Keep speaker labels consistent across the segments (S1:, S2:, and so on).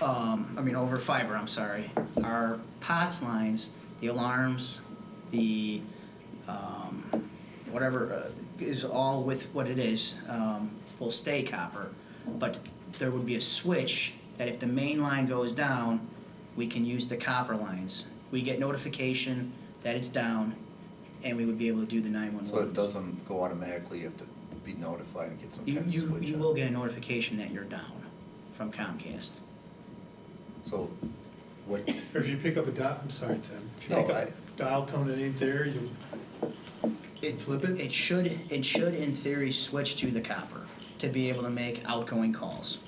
S1: um, I mean, over fiber, I'm sorry, our POTS lines, the alarms, the, um, whatever uh, is all with what it is, um, will stay copper. But there would be a switch that if the main line goes down, we can use the copper lines. We get notification that it's down, and we would be able to do the 911.
S2: So it doesn't go automatically, you have to be notified and get some
S1: You,
S2: kind of switch.
S1: you, you
S2: on.
S1: will get a notification that you're down from Comcast.
S2: So what,
S3: Or if you pick up a dial, I'm sorry, Tim. If you
S2: No,
S3: pick up
S2: I-
S3: a dial tone that ain't there, you,
S1: It-
S3: Flip it?
S1: It should, it should in theory switch to the copper to be able to make outgoing calls.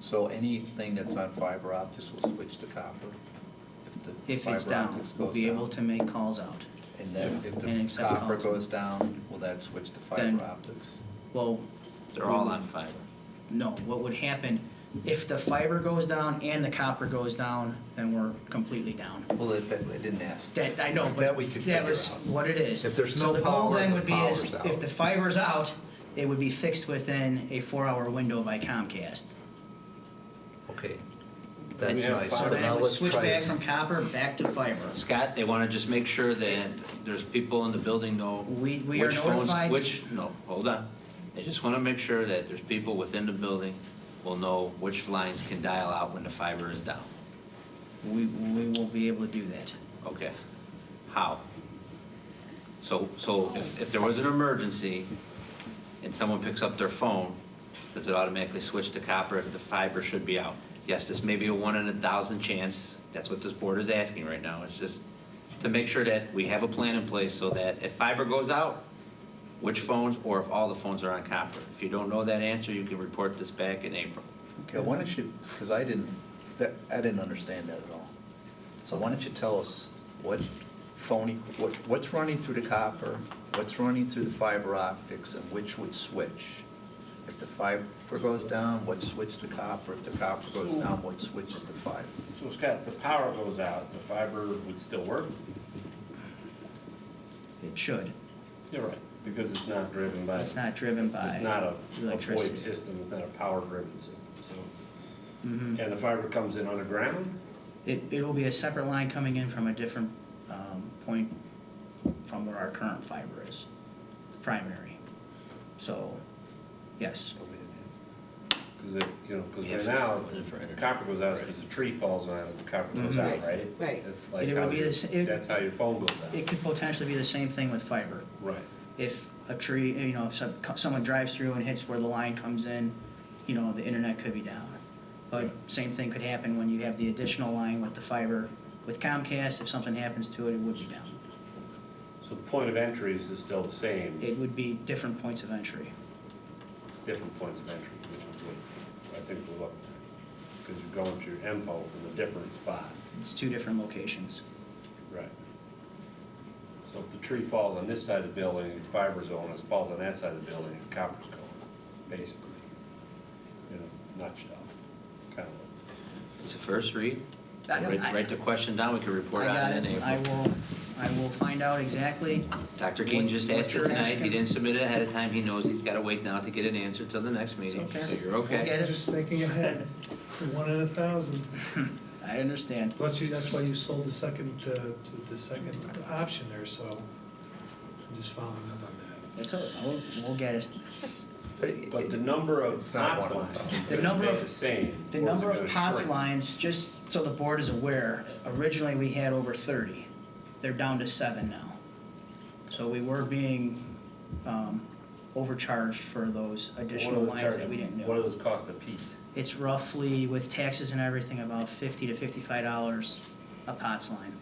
S2: so anything that's on fiber optics will switch to copper? the
S1: If it's
S2: fiber
S1: down,
S2: optics
S1: we'll
S2: goes
S1: be
S2: down?
S1: able to make calls out.
S2: And then if
S1: and
S2: the
S1: accept
S2: copper
S1: calls.
S2: goes down, will that switch to
S1: Then-
S2: fiber optics?
S1: Well.
S4: They're all on fiber.
S1: No, what would happen, if the fiber goes down and the copper goes down, then we're completely down.
S2: Well, that, that- I didn't ask.
S1: That, I know,
S2: That
S1: but
S2: we could
S1: that
S2: figure
S1: was
S2: out.
S1: what it is.
S2: If there's no
S1: So the goal
S2: power,
S1: then
S2: the
S1: would be is
S2: power's out.
S1: If the fiber's out, it would be fixed within a four-hour window by Comcast.
S2: Okay, that's
S4: We have
S2: nice.
S4: fiber.
S1: So
S2: So
S1: then
S2: now
S1: it would
S2: let's
S1: switch
S2: try
S1: back
S2: this.
S1: from copper back to fiber.
S4: Scott, they want to just make sure that there's people in the building know
S1: We- we are
S4: which phones,
S1: notified.
S4: which, no, hold on. They just want to make sure that there's people within the building will know which lines can dial out when the fiber is down.
S1: We, we will be able to do that.
S4: Okay. How? So, so if, if there was an emergency and someone picks up their phone, does it automatically switch to copper if the fiber should be out? Yes, this may be a one in a thousand chance. That's what this board is asking right now. It's just to make sure that we have a plan in place so that if fiber goes out, which phones, or if all the phones are on copper. If you don't know that answer, you can report this back in April.
S2: Okay, why don't you, because I didn't, that, I didn't understand that at all. So why don't you tell us what phony, what, what's running through the copper, what's running through the fiber optics, and which would switch? If the fiber goes down, what switch to copper? If the copper goes down, what switches to fiber?
S5: So Scott, the power goes out, the fiber would still work?
S1: It should.
S5: You're right. Because it's not driven by.
S1: It's not driven by
S5: It's not a a
S1: electricity.
S5: VoIP system, it's not a power-driven system, so.
S1: Mhm.
S5: And the fiber comes in underground?
S1: It, it will be a separate line coming in from a different, um, point from where our current fiber is, primary. So, yes,
S5: Because it, you know, because
S4: Yeah,
S5: right
S4: for-
S5: now,
S4: for
S5: the
S4: energy.
S5: copper goes out, because the tree falls on it, the copper goes
S1: Mhm.
S5: out,
S6: Right,
S5: right?
S6: right.
S5: That's like
S1: It would
S5: how
S1: be
S5: your,
S1: the s- it-
S5: that's how your phone goes out.
S1: it could potentially be the same thing with fiber.
S5: Right.
S1: If a tree, you know, if some, someone drives through and hits where the line comes in, you know, the internet could be down. But same thing could happen when you have the additional line with the fiber. With Comcast, if something happens to it, it would be down.
S5: So the point of entry is still the same,
S1: It would be different points of entry.
S5: different points of entry, which is what I think we'll look Because you're going to your MPO from a different spot.
S1: It's two different locations.
S5: Right. So if the tree falls on this side of the building, the fiber's on, it falls on that side of the building, the copper's going, basically. In a nutshell, kind of.
S4: It's a first read.
S1: I-
S4: Write
S1: I-
S4: write the question down, we can
S1: I
S4: report on
S1: got
S4: it in
S1: it.
S4: April.
S1: I will, I will find out exactly.
S4: Dr. Kane just
S1: What-
S4: asked it
S1: what you're
S4: tonight,
S1: asking.
S4: he didn't submit it ahead of time, he knows he's gotta wait now to get an answer till the next meeting, so
S1: okay.
S4: you're
S1: We'll get
S4: okay.
S1: it.
S3: just thinking ahead, one in a thousand.
S1: I understand.
S3: Plus you, that's why you sold the second, uh, the second option there, so I'm just following up on that.
S1: That's all, we'll, we'll get it.
S5: But the number of
S2: It's not
S5: POTS
S2: one of
S5: lines
S2: those.
S5: is
S1: The number
S5: gonna
S1: of-
S5: stay the same.
S1: The
S5: or is it
S1: number of
S5: gonna
S1: POTS
S5: shrink?
S1: lines, just so the board is aware, originally we had over 30. They're down to seven now. So we were being um, overcharged for those
S5: What are
S1: additional
S5: those
S1: lines that
S5: charging?
S1: we didn't
S5: What do
S1: know.
S5: those cost a piece?
S1: It's roughly, with taxes and everything, about 50 to $55 a POTS line.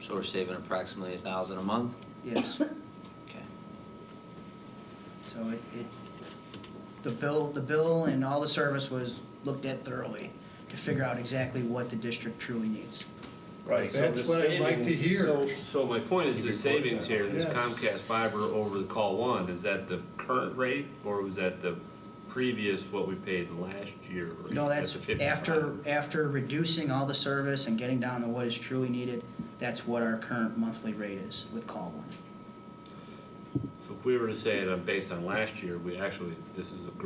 S4: So we're saving approximately a thousand a month?
S1: Yes.
S4: Okay.
S1: So it, it, the bill, the bill and all the service was looked at thoroughly to figure out exactly what the district truly needs.
S2: Right,
S3: so That's the what I'd like to savings- hear. so-
S7: So my point is the savings here, this
S3: Yes.
S7: Comcast fiber over the call one, is that the current rate or was that the previous, what we paid last year? rate?
S1: No, that's
S7: the 55?
S1: after, after reducing all the service and getting down to what is truly needed, that's what our current monthly rate is with call one.
S7: uh, So if we were to say it on- based on last year, we actually, this is a